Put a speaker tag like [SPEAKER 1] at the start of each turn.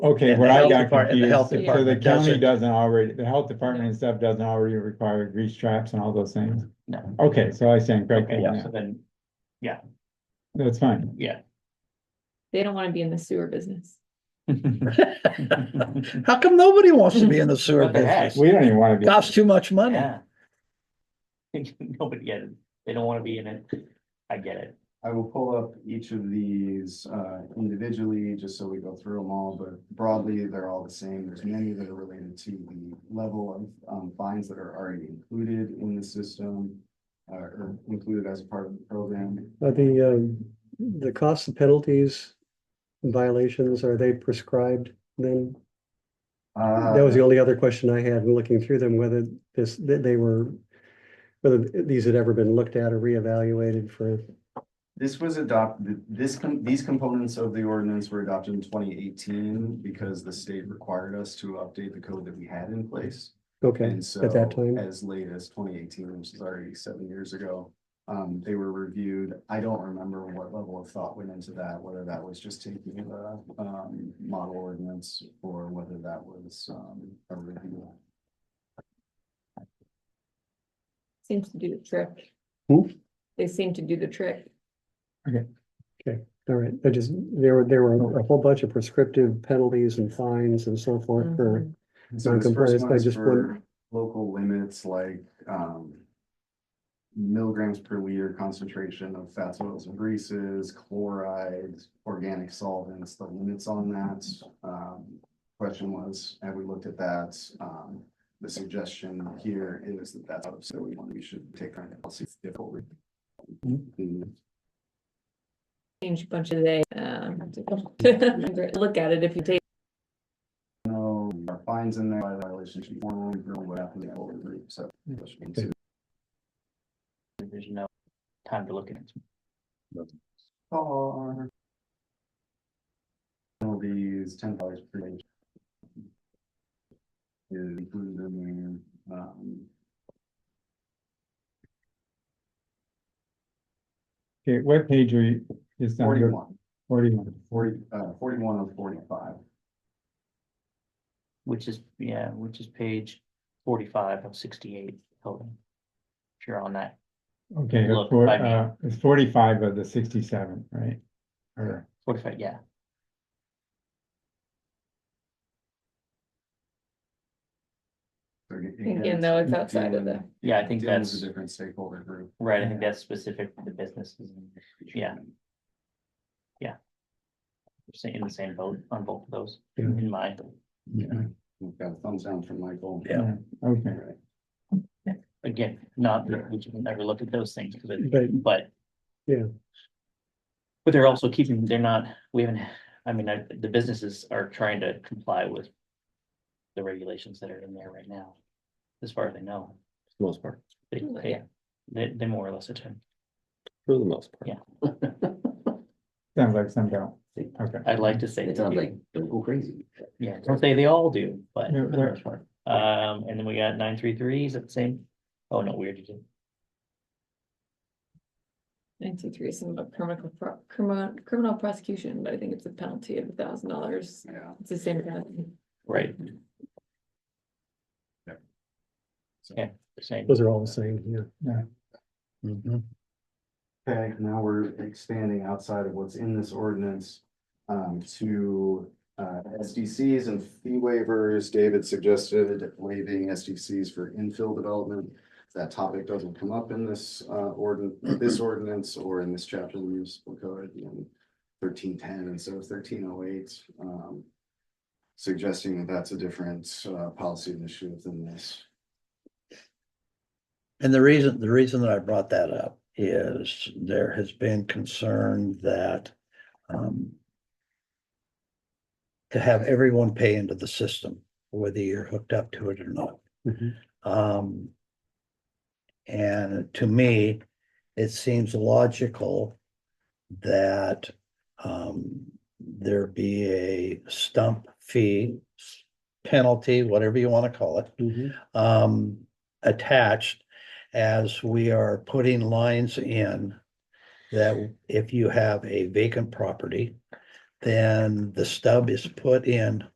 [SPEAKER 1] Okay,
[SPEAKER 2] And
[SPEAKER 1] what
[SPEAKER 2] the
[SPEAKER 1] I
[SPEAKER 2] health
[SPEAKER 1] got
[SPEAKER 2] depart- and the
[SPEAKER 1] confused,
[SPEAKER 2] health
[SPEAKER 1] so the
[SPEAKER 2] department
[SPEAKER 1] county
[SPEAKER 2] doesn't.
[SPEAKER 1] doesn't already, the health department and stuff doesn't already require grease traps and all those things?
[SPEAKER 3] No.
[SPEAKER 1] Okay, so I stand
[SPEAKER 3] Okay,
[SPEAKER 1] corrected,
[SPEAKER 3] so
[SPEAKER 1] yeah,
[SPEAKER 3] then,
[SPEAKER 1] that's fine.
[SPEAKER 3] yeah.
[SPEAKER 4] They don't wanna be in the sewer business.
[SPEAKER 2] How come nobody wants to be in the sewer
[SPEAKER 3] But they
[SPEAKER 2] business?
[SPEAKER 1] We don't even wanna be,
[SPEAKER 2] Costs too much money.
[SPEAKER 3] Yeah. Nobody get it. They don't wanna be in it. I get it.
[SPEAKER 5] I will pull up each of these uh, individually, just so we go through them all, but broadly, they're all the same. There's many that are related to the level of um, fines that are already included in the system uh, or included as part of the program.
[SPEAKER 6] Are the, um, the costs and penalties and violations, are they prescribed then?
[SPEAKER 5] Uh,
[SPEAKER 6] That was the only other question I had in looking through them, whether this, that they were, whether these had ever been looked at or reevaluated for,
[SPEAKER 5] This was adopted, this, com- these components of the ordinance were adopted in twenty eighteen because the state required us to update the code that we had in place.
[SPEAKER 6] okay,
[SPEAKER 5] And so
[SPEAKER 6] at that time.
[SPEAKER 5] as late as twenty eighteen, which is already seven years ago, um, they were reviewed. I don't remember what level of thought went into that, whether that was just taking the um model ordinance or whether that was um a review.
[SPEAKER 4] Seems to do the trick.
[SPEAKER 6] Hmm?
[SPEAKER 4] They seem to do the trick.
[SPEAKER 6] All right, I just, there were, there were a whole bunch of prescriptive penalties and fines and so forth for,
[SPEAKER 4] Mhm.
[SPEAKER 5] So this first
[SPEAKER 6] Non-compliance,
[SPEAKER 5] one
[SPEAKER 6] I
[SPEAKER 5] is
[SPEAKER 6] just
[SPEAKER 5] for
[SPEAKER 6] wonder-
[SPEAKER 5] local limits like um. Milligrams per liter concentration of fats, oils and greases, chlorides, organic solvents, the limits on that. Um, question was, have we looked at that? Um, the suggestion here is that that's, so we want, we should take our policy forward.
[SPEAKER 6] Mm-hmm.
[SPEAKER 4] Change a bunch of they, um, look at it if you take,
[SPEAKER 5] No, our fines in there, violation should be formally, proven what happened, the whole group, so.
[SPEAKER 3] There's no time to look at it.
[SPEAKER 5] Car. All these ten dollars per day. Is included in there, um,
[SPEAKER 1] okay, what page are you, is on your,
[SPEAKER 5] forty-one,
[SPEAKER 1] forty-one?
[SPEAKER 5] forty, uh, forty-one of forty-five.
[SPEAKER 3] Which is, yeah, which is page forty-five of sixty-eight, Hilda. If you're on that,
[SPEAKER 1] Okay,
[SPEAKER 3] Look,
[SPEAKER 1] for,
[SPEAKER 3] I mean-
[SPEAKER 1] uh, it's forty-five of the sixty-seven, right? Or,
[SPEAKER 3] forty-five, yeah.
[SPEAKER 5] So aga-
[SPEAKER 4] again, though, it's outside of the,
[SPEAKER 5] dealing-
[SPEAKER 3] Yeah, I think
[SPEAKER 5] dealing with
[SPEAKER 3] that's,
[SPEAKER 5] A different stakeholder group.
[SPEAKER 3] right, I think that's specific to the businesses. and Yeah. we're Saying in the same boat on both of those,
[SPEAKER 6] Yeah.
[SPEAKER 5] Mm-hmm.
[SPEAKER 3] in my,
[SPEAKER 5] Yeah, we've got a thumbs down from Michael.
[SPEAKER 2] Yeah.
[SPEAKER 1] okay,
[SPEAKER 5] Alright.
[SPEAKER 3] again, not, that we should never look at those things, because
[SPEAKER 6] but
[SPEAKER 3] but.
[SPEAKER 6] Yeah.
[SPEAKER 3] But they're also keeping, they're not, we haven't, I mean, I- the businesses are trying to comply with. The regulations that are in there right now, as far as I know.
[SPEAKER 7] the most part,
[SPEAKER 3] They,
[SPEAKER 4] Mm,
[SPEAKER 3] they,
[SPEAKER 4] yeah.
[SPEAKER 3] they- they more or less attend.
[SPEAKER 7] for the most part.
[SPEAKER 3] Yeah.
[SPEAKER 1] sounds like some don't, okay.
[SPEAKER 3] I'd like to say.
[SPEAKER 8] It
[SPEAKER 3] they
[SPEAKER 8] sounds
[SPEAKER 3] do.
[SPEAKER 8] like, don't go crazy.
[SPEAKER 3] Yeah, don't say they all do, but,
[SPEAKER 1] Yeah,
[SPEAKER 8] for the
[SPEAKER 1] there-
[SPEAKER 8] most part.
[SPEAKER 3] um, and then we got nine three threes at the same. Oh, no, we already did.
[SPEAKER 4] ninety-three, some about criminal, pro- criminal, criminal prosecution, but I think it's a penalty of a thousand dollars.
[SPEAKER 5] Yeah.
[SPEAKER 4] It's the same penalty.
[SPEAKER 3] Right,
[SPEAKER 5] so-
[SPEAKER 3] Yeah. same.
[SPEAKER 6] those are all the same, yeah.
[SPEAKER 2] Mhm.
[SPEAKER 5] Okay, now we're expanding outside of what's in this ordinance um, to uh, SDCs and fee waivers. David suggested waiving SDCs for infill development. That topic doesn't come up in this uh, ordinance, this ordinance or in this chapter of the municipal code in thirteen ten instead of thirteen oh eight. Suggesting that that's a different uh, policy initiative than this.
[SPEAKER 2] And the reason, the reason that I brought that up is there has been concern that um, to have everyone pay into the system, whether you're hooked up to it or not.
[SPEAKER 6] Mhm.
[SPEAKER 2] Um, and to me, it seems logical that um, there be a stump fee, penalty, whatever you want to call it,
[SPEAKER 6] Mhm.
[SPEAKER 2] um, attached as we are putting lines in that if you have a vacant property, then the stub is put in